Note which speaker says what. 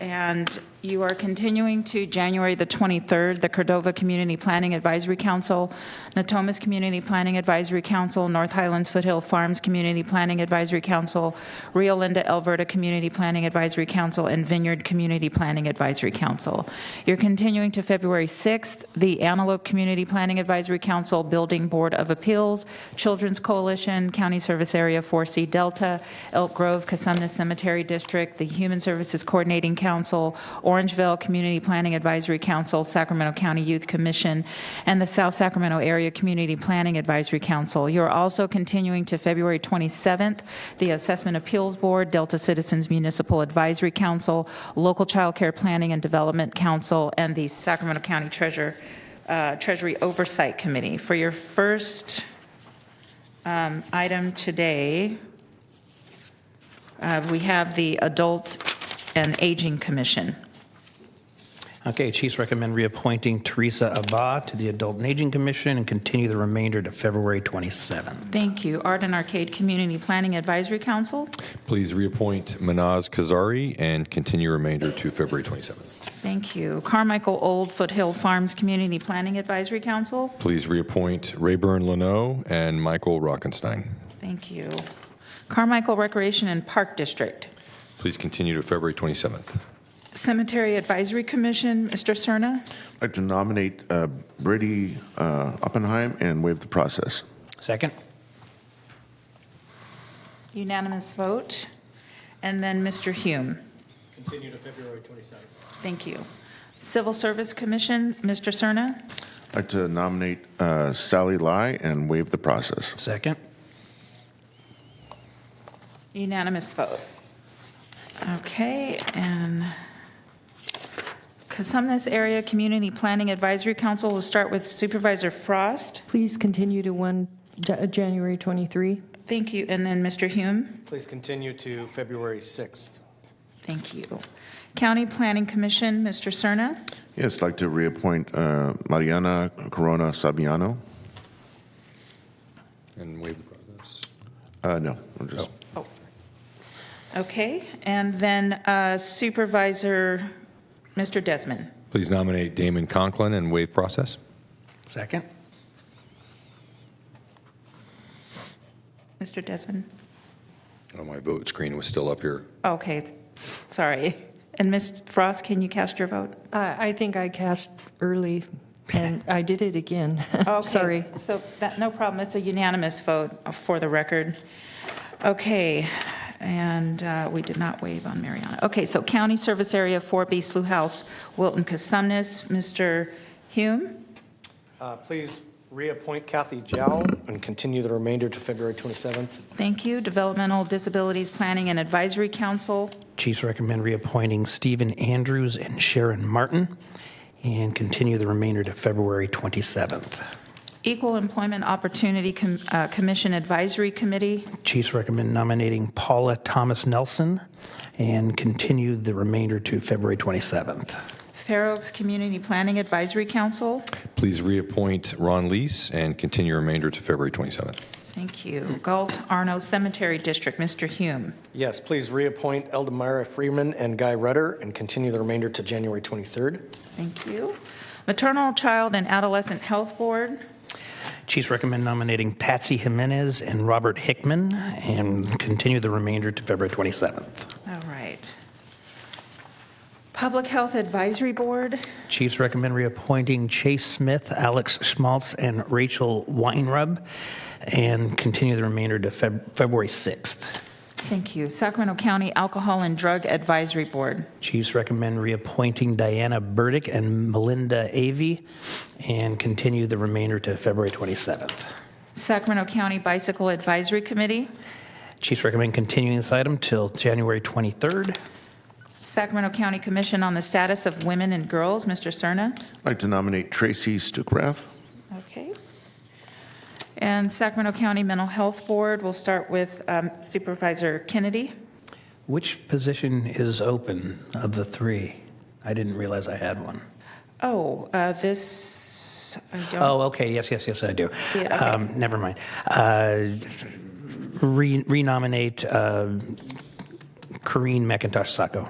Speaker 1: And you are continuing to January the 23rd, the Cordova Community Planning Advisory Council, Natomas Community Planning Advisory Council, North Highlands Foothill Farms Community Planning Advisory Council, Rio Linda Alberta Community Planning Advisory Council, and Vineyard Community Planning Advisory Council. You're continuing to February 6th, the Antelope Community Planning Advisory Council, Building Board of Appeals, Children's Coalition, County Service Area 4C Delta, Elk Grove, Casumna Cemetery District, the Human Services Coordinating Council, Orangeville Community Planning Advisory Council, Sacramento County Youth Commission, and the South Sacramento Area Community Planning Advisory Council. You're also continuing to February 27th, the Assessment Appeals Board, Delta Citizens Municipal Advisory Council, Local Child Care Planning and Development Council, and the Sacramento County Treasurer, uh, Treasury Oversight Committee. For your first um, item today, uh, we have the Adult and Aging Commission.
Speaker 2: Okay, Chiefs recommend reappointing Teresa Abba to the Adult and Aging Commission and continue the remainder to February 27th.
Speaker 1: Thank you. Art and Arcade Community Planning Advisory Council.
Speaker 3: Please reappoint Manaz Kazari and continue remainder to February 27th.
Speaker 1: Thank you. Carmichael Old Foothill Farms Community Planning Advisory Council.
Speaker 3: Please reappoint Rayburn Leno and Michael Rockenstein.
Speaker 1: Thank you. Carmichael Recreation and Park District.
Speaker 3: Please continue to February 27th.
Speaker 1: Cemetery Advisory Commission, Mr. Cerna.
Speaker 4: I'd like to nominate uh, Brady uh, Oppenheim and waive the process.
Speaker 2: Second?
Speaker 1: Unanimous vote. And then Mr. Hume. Continue to February 27th. Thank you. Civil Service Commission, Mr. Cerna.
Speaker 4: I'd like to nominate uh, Sally Lai and waive the process.
Speaker 2: Second?
Speaker 1: Unanimous vote. Okay, and Casumnas Area Community Planning Advisory Council, we'll start with Supervisor Frost.
Speaker 5: Please continue to 1 Ja- uh, January 23.
Speaker 1: Thank you, and then Mr. Hume.
Speaker 6: Please continue to February 6th.
Speaker 1: Thank you. County Planning Commission, Mr. Cerna.
Speaker 4: Yes, I'd like to reappoint uh, Mariana Corona Sabiano.
Speaker 3: And waive the process.
Speaker 4: Uh, No, I'm just,
Speaker 1: Oh. Okay, and then uh, Supervisor, Mr. Desmond.
Speaker 3: Please nominate Damon Conklin and waive process.
Speaker 2: Second?
Speaker 1: Mr. Desmond?
Speaker 3: Oh, my vote screen was still up here.
Speaker 1: Okay, sorry. And Ms. Frost, can you cast your vote?
Speaker 5: Uh, I I think I cast early, and I did it again.
Speaker 1: Okay,
Speaker 5: Sorry.
Speaker 1: So that, no problem. It's a unanimous vote uh, for the record. Okay, and uh, we did not waive on Mariana. Okay, so County Service Area 4B Slough House, Wilton Casumnes, Mr. Hume.
Speaker 6: Uh, Please reappoint Kathy Jow and continue the remainder to February 27th.
Speaker 1: Thank you. Developmental Disabilities Planning and Advisory Council.
Speaker 2: Chiefs recommend reappointing Stephen Andrews and Sharon Martin and continue the remainder to February 27th.
Speaker 1: Equal Employment Opportunity Com- uh, Commission Advisory Committee.
Speaker 2: Chiefs recommend nominating Paula Thomas Nelson and continue the remainder to February 27th.
Speaker 1: Fair Oaks Community Planning Advisory Council.
Speaker 3: Please reappoint Ron Lees and continue remainder to February 27th.
Speaker 1: Thank you. Galt Arno Cemetery District, Mr. Hume.
Speaker 6: Yes, please reappoint Eldemira Freeman and Guy Rudder and continue the remainder to January 23rd.
Speaker 1: Thank you. Maternal, Child, and Adolescent Health Board,
Speaker 2: Chiefs recommend nominating Patsy Jimenez and Robert Hickman and continue the remainder to February 27th.
Speaker 1: all right. Public Health Advisory Board,
Speaker 2: Chiefs recommend reappointing Chase Smith, Alex Schmaltz, and Rachel Weinrub and continue the remainder to Feb- February 6th.
Speaker 1: thank you. Sacramento County Alcohol and Drug Advisory Board,
Speaker 2: Chiefs recommend reappointing Diana Burdick and Melinda Avey and continue the remainder to February 27th.
Speaker 1: Sacramento County Bicycle Advisory Committee,
Speaker 2: Chiefs recommend continuing this item till January 23rd.
Speaker 1: Sacramento County Commission on the Status of Women and Girls, Mr. Cerna.
Speaker 4: I'd like to nominate Tracy Stukrath.
Speaker 1: Okay. And Sacramento County Mental Health Board, we'll start with um, Supervisor Kennedy.
Speaker 2: Which position is open of the three? I didn't realize I had one.
Speaker 1: Oh, uh, this, I don't.
Speaker 2: Oh, okay, yes, yes, yes, I do.
Speaker 1: Yeah, okay.
Speaker 2: Um, Never mind. Uh, re- Renominate uh, Corinne McIntosh Sacco.